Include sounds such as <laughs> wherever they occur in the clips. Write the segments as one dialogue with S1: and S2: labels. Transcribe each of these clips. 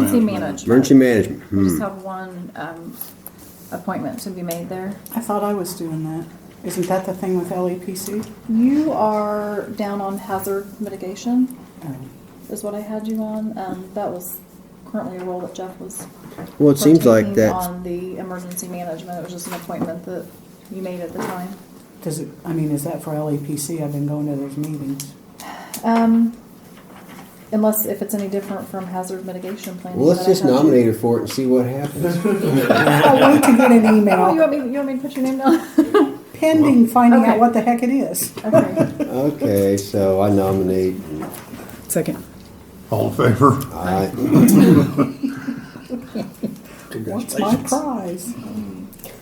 S1: Emergency management.
S2: Emergency management,
S1: We just
S2: hmm.
S1: have one um, appointment to be made there.
S3: I thought I was doing that. Isn't that the thing with E LEPC?
S1: You are down on hazard mitigation,
S3: Um,
S1: is what I had you on. Um, That was currently a role that Jeff was.
S2: Well, it seems like
S1: partaking
S2: that's,
S1: On the emergency management, it was just an appointment that you made at the time.
S3: Does it, I mean, is that for LEPC? I've been going to those meetings.
S1: Um, Unless, if it's any different from hazard mitigation planning.
S2: well, let's
S1: that I
S2: just
S1: had you-
S2: nominate her for it and see what happens.
S3: I'll wait to get an
S1: Oh, you
S3: email
S1: want me, you want me to put your name down?
S3: pending finding out
S1: Okay.
S3: what the heck it is.
S1: <laughs> Okay.
S2: <laughs> Okay, so I nominate,
S3: Second.
S4: All in favor?
S2: I,
S3: What's my prize?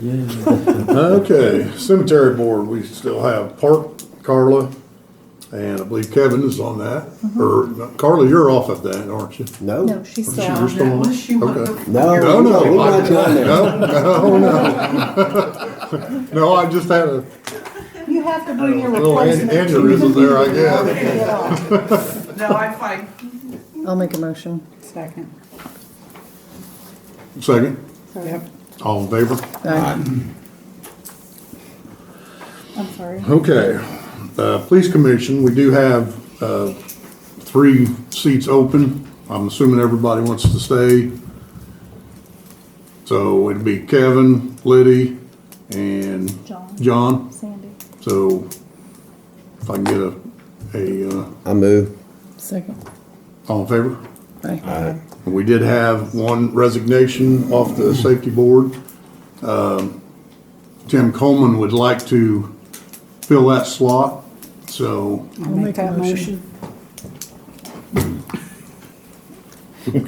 S4: Okay, cemetery board, we still have Park, Carla, and I believe Kevin is on that. Or no, Carla, you're off of that, aren't you?
S2: no,
S1: No, she's
S4: She-
S1: still
S4: you're
S1: on.
S4: still on
S5: Unless you want
S4: Okay.
S5: to-
S2: no,
S4: No,
S2: no,
S4: no,
S2: we're not
S4: no,
S2: doing that.
S4: <laughs> no, no. No, <laughs> I just had a
S3: You have to bring your
S4: little an-
S3: replacement.
S4: aneurysm there, I guess.
S3: Get off.
S5: <laughs> No, I'm fine.
S6: I'll make a motion.
S3: Second.
S4: Second,
S3: Yep.
S4: all in favor?
S1: I'm sorry.
S4: Okay, uh, Police Commission, we do have uh, three seats open. I'm assuming everybody wants to stay. So it'd be Kevin, Liddy, and
S1: John.
S4: John.
S1: Sandy.
S4: So if I can get a, a, uh,
S2: I move.
S6: Second.
S4: all in favor?
S6: Aye.
S4: We did have one resignation off the safety board. Um, Tim Coleman would like to fill that slot, so
S3: I'll make that motion.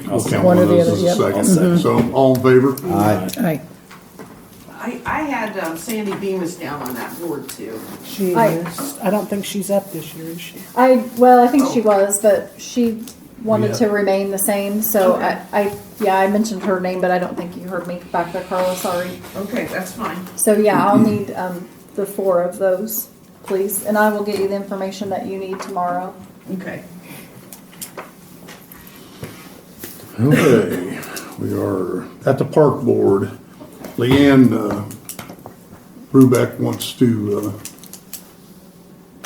S4: I'll count
S6: One
S4: one
S6: or
S4: of
S6: the
S4: those
S6: other,
S4: as
S6: yep.
S4: a second. So, all in favor?
S2: Aye,
S6: Aye.
S5: I, I had um, Sandy Bemis down on that board too.
S3: She
S1: I-
S3: is. I don't think she's up this year, is she?
S1: I, well, I think she was, but she wanted to remain the same, so I, I, yeah, I mentioned her name, but I don't think you heard me back there, Carla, sorry.
S5: Okay, that's fine.
S1: So, yeah, I'll need, um, the four of those, please, and I will get you the information that you need tomorrow.
S5: Okay.
S4: Okay, we are at the park board. Leanne uh, Rubeck wants to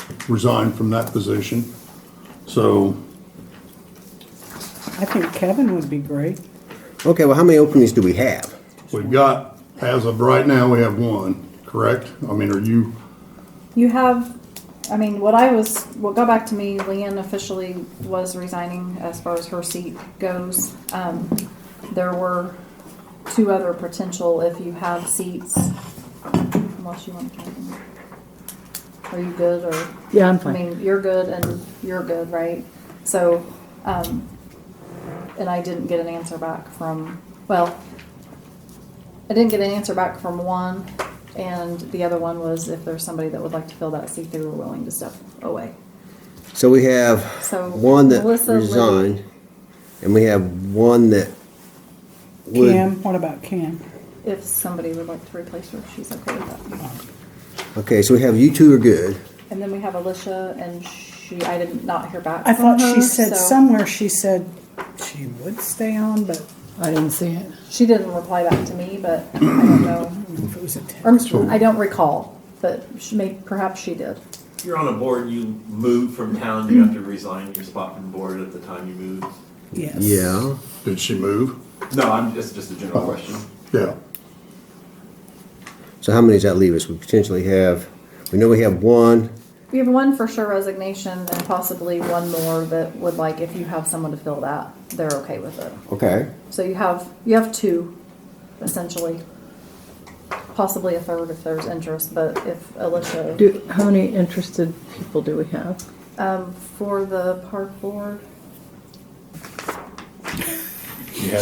S4: uh, resign from that position. So,
S3: I think Kevin would be great.
S2: okay, well, how many openings do we have?
S4: we've got, as of right now, we have one, correct? I mean, are you,
S1: You have, I mean, what I was, what got back to me, Leanne officially was resigning as far as her seat goes. Um, there were two other potential if you have seats, unless you want to. count them. Are you good or?
S6: Yeah, I'm
S1: I
S6: fine.
S1: mean, you're good and you're good, right? So, um, and I didn't get an answer back from, well, I didn't get an answer back from one, and the other one was if there's somebody that would like to fill that seat, they were willing to step away.
S2: So we have
S1: So,
S2: one that
S1: Melissa Lee.
S2: resigned, and we have one that would.
S3: Cam, what about Cam?
S1: If somebody would like to replace her, she's okay with that.
S2: Okay, so we have you two are good.
S1: And then we have Alicia, and she, I did not hear back
S3: I
S1: from
S3: thought
S1: her.
S3: she said
S1: so-
S3: somewhere she said she would stay on, but
S6: I didn't see it.
S1: She didn't reply back to me, but I don't know.
S3: if it was a
S1: Or,
S3: text.
S1: I don't recall, but she may, perhaps she did.
S7: You're on a board, you move from town, you have to resign your spot from board at the time you move.
S3: Yes.
S2: Yeah.
S4: did she move?
S7: No, I'm, it's just a general question.
S4: Yeah.
S2: So how many does that leave us? We potentially have, we know we have one.
S1: We have one for sure resignation and possibly one more that would like, if you have someone to fill that, they're okay with it.
S2: Okay.
S1: So you have, you have two essentially. Possibly a third if there's interest, but if Alicia,
S6: Do, how many interested people do we have?
S1: um, for the park board,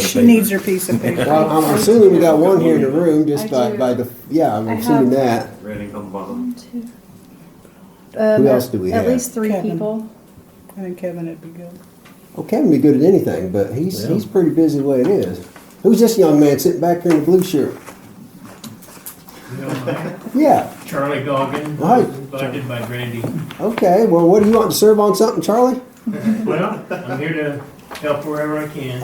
S3: She needs her piece of paper.
S2: Well, I'm assuming we got one here in the room,
S1: I
S2: just by,
S1: do.
S2: by the, yeah, I'm
S1: I
S2: assuming that.
S1: have-
S7: Randy on the bottom.
S1: one, two. um,
S2: Who else do we
S1: At
S2: have?
S1: least three
S3: Kevin.
S1: people.
S3: I think Kevin would be good.
S2: Well, Kevin be good at anything, but he's, he's pretty busy the way it is. Who's this young man sitting back here in the blue shirt? Yeah,
S8: Charlie Goggin,
S2: Hi.
S8: invited by Randy.
S2: okay, well, what do you want to serve on something, Charlie?
S8: Well, I'm here to help wherever I can.